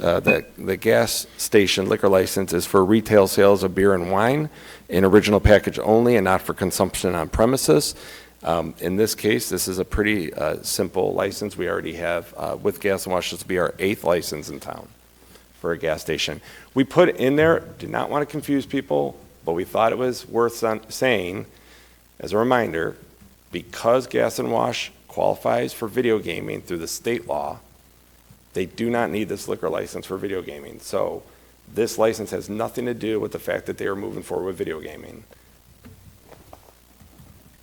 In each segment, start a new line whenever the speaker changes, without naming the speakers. Uh, The the gas station liquor license is for retail sales of beer and wine in original package only and not for consumption on premises. Um, In this case, this is a pretty uh, simple license. We already have, uh, with Gas and Wash, this will be our eighth license in town for a gas station. We put in there, did not want to confuse people, but we thought it was worth son- saying, as a reminder, because Gas and Wash qualifies for video gaming through the state law, they do not need this liquor license for video gaming. So this license has nothing to do with the fact that they are moving forward with video gaming.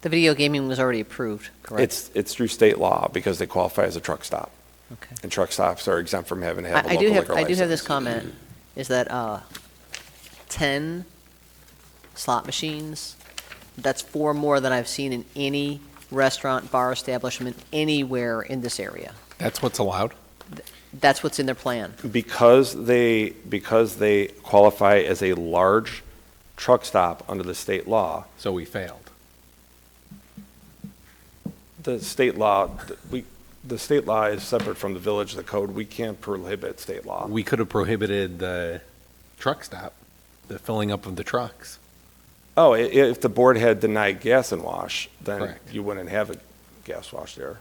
The video gaming was already approved, correct?
It's, it's through state law because they qualify as a truck stop.
Okay.
And truck stops are exempt from having to have a
I I
local
do
liquor
have,
license.
I do have this comment, is that uh, 10 slot machines, that's four more than I've seen in any restaurant, bar establishment, anywhere in this area.
That's what's allowed?
That's what's in their plan.
Because they, because they qualify as a large truck stop under the state law,
So we failed.
the state law, we, the state law is separate from the village, the code. We can't prohibit state law.
We could have prohibited the truck stop, the filling up of the trucks.
Oh, i- if the board had denied gas and wash, then
Correct.
you wouldn't have a gas wash there.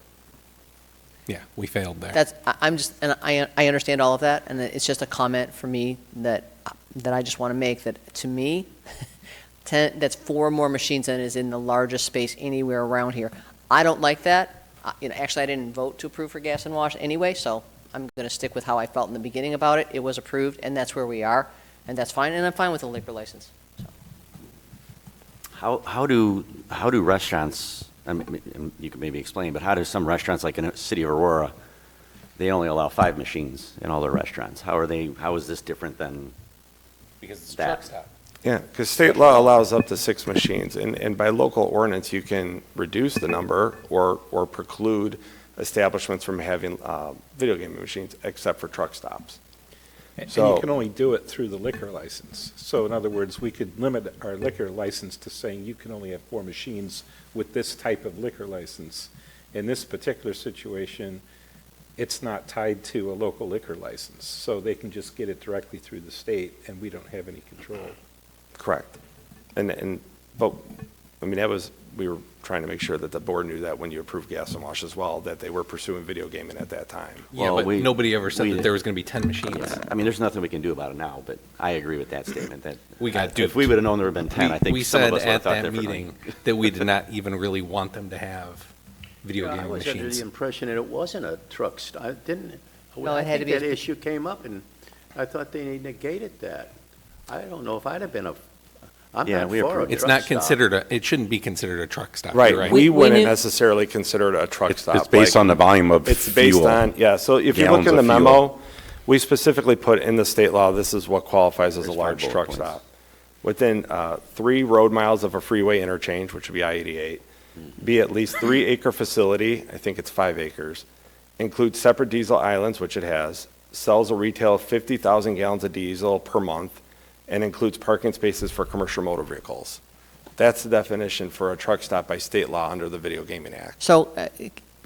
Yeah, we failed there.
That's, I- I'm just, and I, I understand all of that, and it's just a comment for me that, that I just want to make, that to me, 10, that's four more machines than is in the largest space anywhere around here. I don't like that. I- You know, actually, I didn't vote to approve for gas and wash anyway, so I'm going to stick with how I felt in the beginning about it. It was approved, and that's where we are, and that's fine, and I'm fine with the liquor license.
How, how do, how do restaurants, I mean, I mean, you could maybe explain, but how do some restaurants, like in the city of Aurora, they only allow five machines in all their restaurants? How are they, how is this different than,
Because it's
a truck
stop.
Yeah, because state law allows up to six machines, and, and by local ordinance, you can reduce the number or, or preclude establishments from having, uh, video gaming machines, except for truck stops.
And
So-
you can only do it through the liquor license. So in other words, we could limit our liquor license to saying you can only have four machines with this type of liquor license. In this particular situation, it's not tied to a local liquor license, so they can just get it directly through the state, and we don't have any control.
Correct. And, and, but, I mean, that was, we were trying to make sure that the board knew that when you approved gas and wash as well, that they were pursuing video gaming at that time.
Yeah,
Well,
but
we-
nobody ever said
we-
that there was going to be 10 machines.
I mean, there's nothing we can do about it now, but I agree with that statement, that.
We got
If we
duped.
would have known there would have been 10, I think
We
some of
said
us would have
at
thought
that
differently.
meeting that we did not even really want them to have video
I
game
was under the
machines.
impression that it wasn't a truck stop, I didn't.
No, it had to be
I think
a-
that issue came up, and I thought they negated that. I don't know if I'd have been a, I'm
Yeah,
not
we
for a truck
approved
It's not
stop.
considered, a. it shouldn't be considered a truck stop. You're
Right, we
We- we
wouldn't
knew-
necessarily consider it a truck
It's
stop.
it's based
like-
on the volume of fuel.
It's based on, yeah, so if you look
Gallons
in the
of fuel.
memo, we specifically put in the state law, this is what qualifies as a
There's five
large
bullet
truck
points.
stop. Within uh, three road miles of a freeway interchange, which would be I-88,
Mm-hmm.
be at least three acre facility, I think it's five acres, includes separate diesel islands, which it has, sells a retail of 50,000 gallons of diesel per month, and includes parking spaces for commercial motor vehicles. That's the definition for a truck stop by state law under the Video Gaming Act.
So, uh,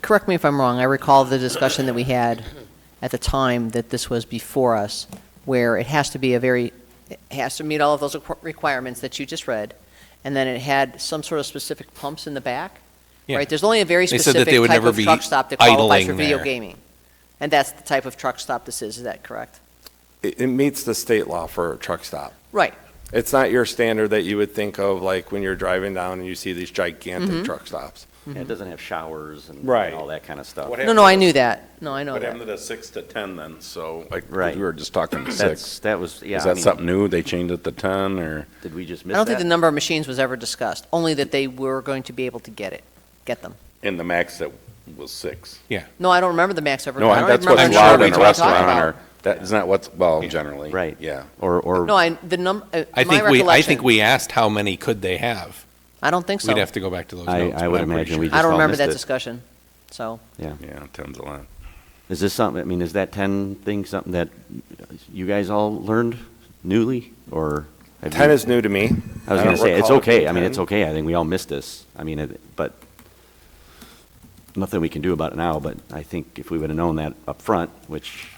correct me if I'm wrong, I recall the discussion that we had at the time that this was before us, where it has to be a very, it has to meet all of those requ- requirements that you just read, and then it had some sort of specific pumps in the back,
Yeah.
right? There's only a very
They said that
specific
they would
type
never
of
be
truck stop that qualifies for
idling
video
there.
gaming. And that's the type of truck stop this is, is that correct?
It, it meets the state law for a truck stop.
Right.
It's not your standard that you would think of, like when you're driving down and you see these gigantic truck stops.
Yeah, It doesn't have showers and
Right.
and all that kind of stuff.
What
No, no, I knew that, no, I know
What happened
that.
to the six to 10 then? So, like,
Right.
we were just talking to
That's,
six.
that was, yeah.
Is
I
that
mean,
something new? They changed it to 10 or?
Did we just
I
miss that?
don't think the number of machines was ever discussed, only that they were going to be able to get it, get them.
In the max that was six.
No, I don't remember the max ever.
No,
I
I-
don't
that's
remember
what's
the number
allowed
we
in a
were talking
restaurant
about.
or, that, isn't that what's, well, generally?
Right.
Yeah.
Or, or.
No, I, the number, my
I think we,
recollection.
I think we asked how many could they have.
I don't think so.
We'd have to go back to those
I-
notes.
I
but
would
I'm pretty
imagine we
sure.
just
I don't
all
remember
missed
that
it.
discussion, so.
Yeah, 10's a lot.
Is this something, I mean, is that 10 thing something that you guys all learned newly, or? have you-
Ten is new to me.
I was
don't
going to say, it's
recall it being
okay, I mean,
10.
it's okay, I think we all missed this, I mean, it- but, nothing we can do about it now, but I think if we would have known that up front, which